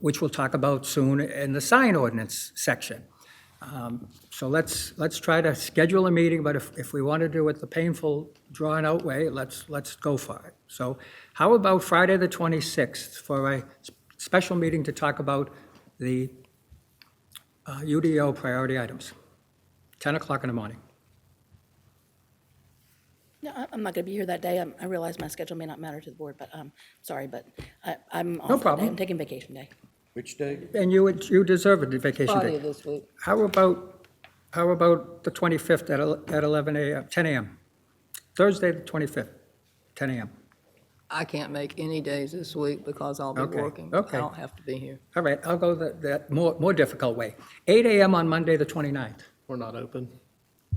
which we'll talk about soon in the sign ordinance section. Um, So let's, let's try to schedule a meeting, but if, if we want to do it the painful, drawn-out way, let's, let's go for it. So how about Friday, the 26th, for a s- special meeting to talk about the uh, UDO priority items? 10 o'clock in the morning. No, I- I'm not going to be here that day. I'm- I realize my schedule may not matter to the board, but I'm sorry, but I- I'm off. that day. problem. I'm taking vacation day. Which day? And you, would- you deserve a vacation Friday day. this week. How about, how about the 25th at el- at 11 a.m., 10 a.m.? Thursday, the 25th, 10 a.m. I can't make any days this week because I'll be Okay, working. I okay. don't have to be here. All right, I'll go that, that more, more difficult way. 8 a.m. on Monday, the 29th. We're not open.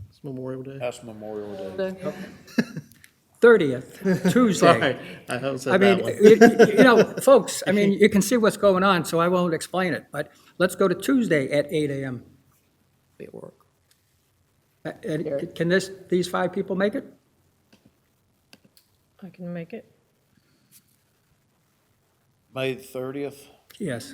It's Memorial Day. That's Memorial Day. Monday? 30th, Tuesday. Sorry, I haven't I said mean, that one. you you know, folks, I mean, you can see what's going on, so I won't explain it, but let's go to Tuesday at 8 a.m. Be at work. Uh, And can this, these five people make it? I can make it. May the thirtieth? Yes.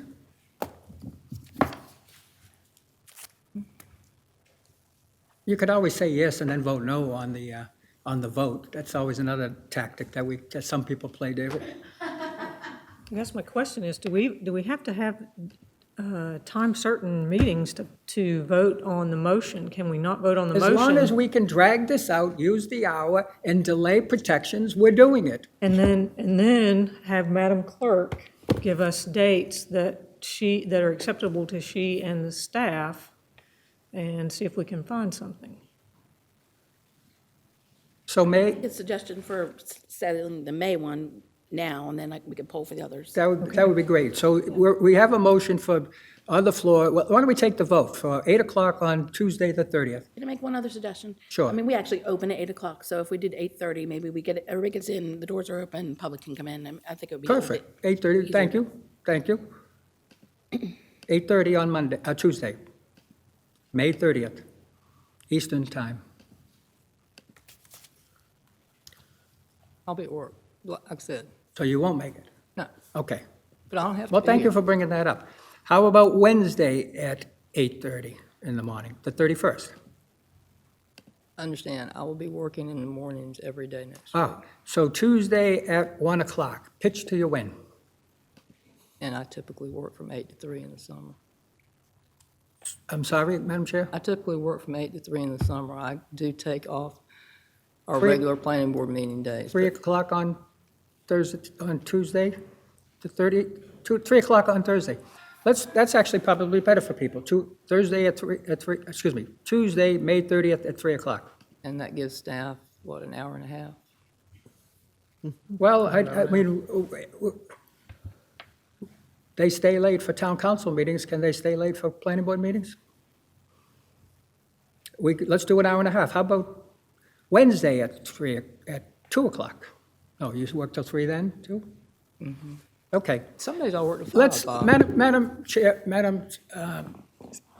You could always say yes and then vote no on the, uh, on the vote. That's always another tactic that we, that some people play, David. I guess my question is, do we, do we have to have uh, time certain meetings to, to vote on the motion? Can we not vote on the As long as motion? we can drag this out, use the hour, and delay protections, we're doing it. And then, and then have Madam Clerk give us dates that she, that are acceptable to she and the staff and see if we can find something. So May, His suggestion for s- setting the May one now, and then like, we could poll for the others. that would, that would be great. So we're, we have a motion for, on the floor, why don't we take the vote for 8 o'clock on Tuesday, the 30th? Can I make one other suggestion? Sure. I mean, we actually open at 8 o'clock, so if we did 8:30, maybe we get, everybody gets in, the doors are open, public can come in. and I think it would be. a little bit- Perfect, 8:30, thank you, thank you. 8:30 on Monday, uh, Tuesday, May 30th, Eastern Time. I'll be at work, like I said. So you won't make it? No, Okay. but I don't have to be Well, thank you here. for bringing that up. How about Wednesday at 8:30 in the morning, the 31st? Understand, I will be working in the mornings every day next, Oh, so Tuesday at 1 o'clock, pitch to your win. and I typically work from eight to three in the summer. I'm sorry, Madam Chair? I typically work from eight to three in the summer. I do take off our Three- regular planning board meeting days. 3 but o'clock on Thursday, on Tuesday, the 30, two- 3 o'clock on Thursday. Let's, that's actually probably better for people, two, Thursday at 3, at 3, excuse me, Tuesday, May 30th at 3 o'clock. And that gives staff, what, an hour and a half? Well, I, I mean, w- w- w- they stay late for town council meetings, can they stay late for planning board meetings? We, could- let's do an hour and a half, how about Wednesday at 3, o- at 2 o'clock? Oh, you work till 3 then, too? Okay. Some days I work to five, Let's, Bob. Madam, Madam Chair, Madam um,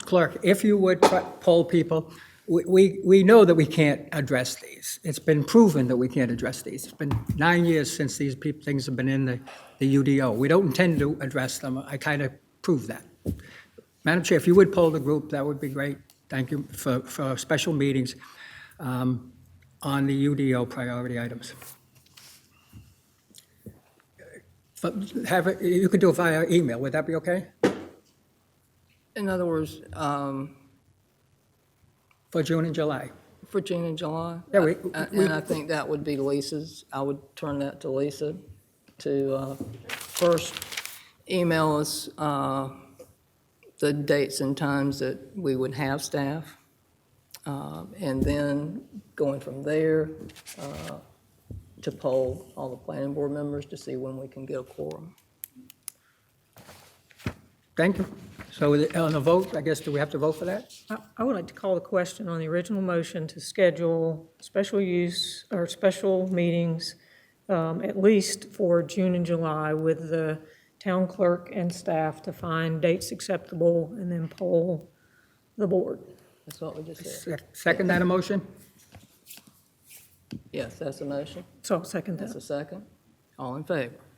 Clerk, if you would try- poll people, we- we, we know that we can't address these. It's been proven that we can't address these. It's been nine years since these peop things have been in the, the UDO. We don't intend to address them. I kind of proved that. Madam Chair, if you would poll the group, that would be great. Thank you for, for special meetings um, on the UDO priority items. But Have, it- you could do it via email, would that be okay? In other words, um, For June and July? for June and July. Yeah, we- A- we- And I think that would be Lisa's. I would turn that to Lisa to uh, first email us uh, the dates and times that we would have staff. um, And then going from there uh, to poll all the planning board members to see when we can get a quorum. Thank you. So on the vote, I guess, do we have to vote for that? I, I would like to call the question on the original motion to schedule special use or special meetings, um, at least for June and July with the town clerk and staff to find dates acceptable and then poll the board. That's what we just said. Se- Second that motion? Yes, that's a motion. So I'll second That's that. a second. All in favor?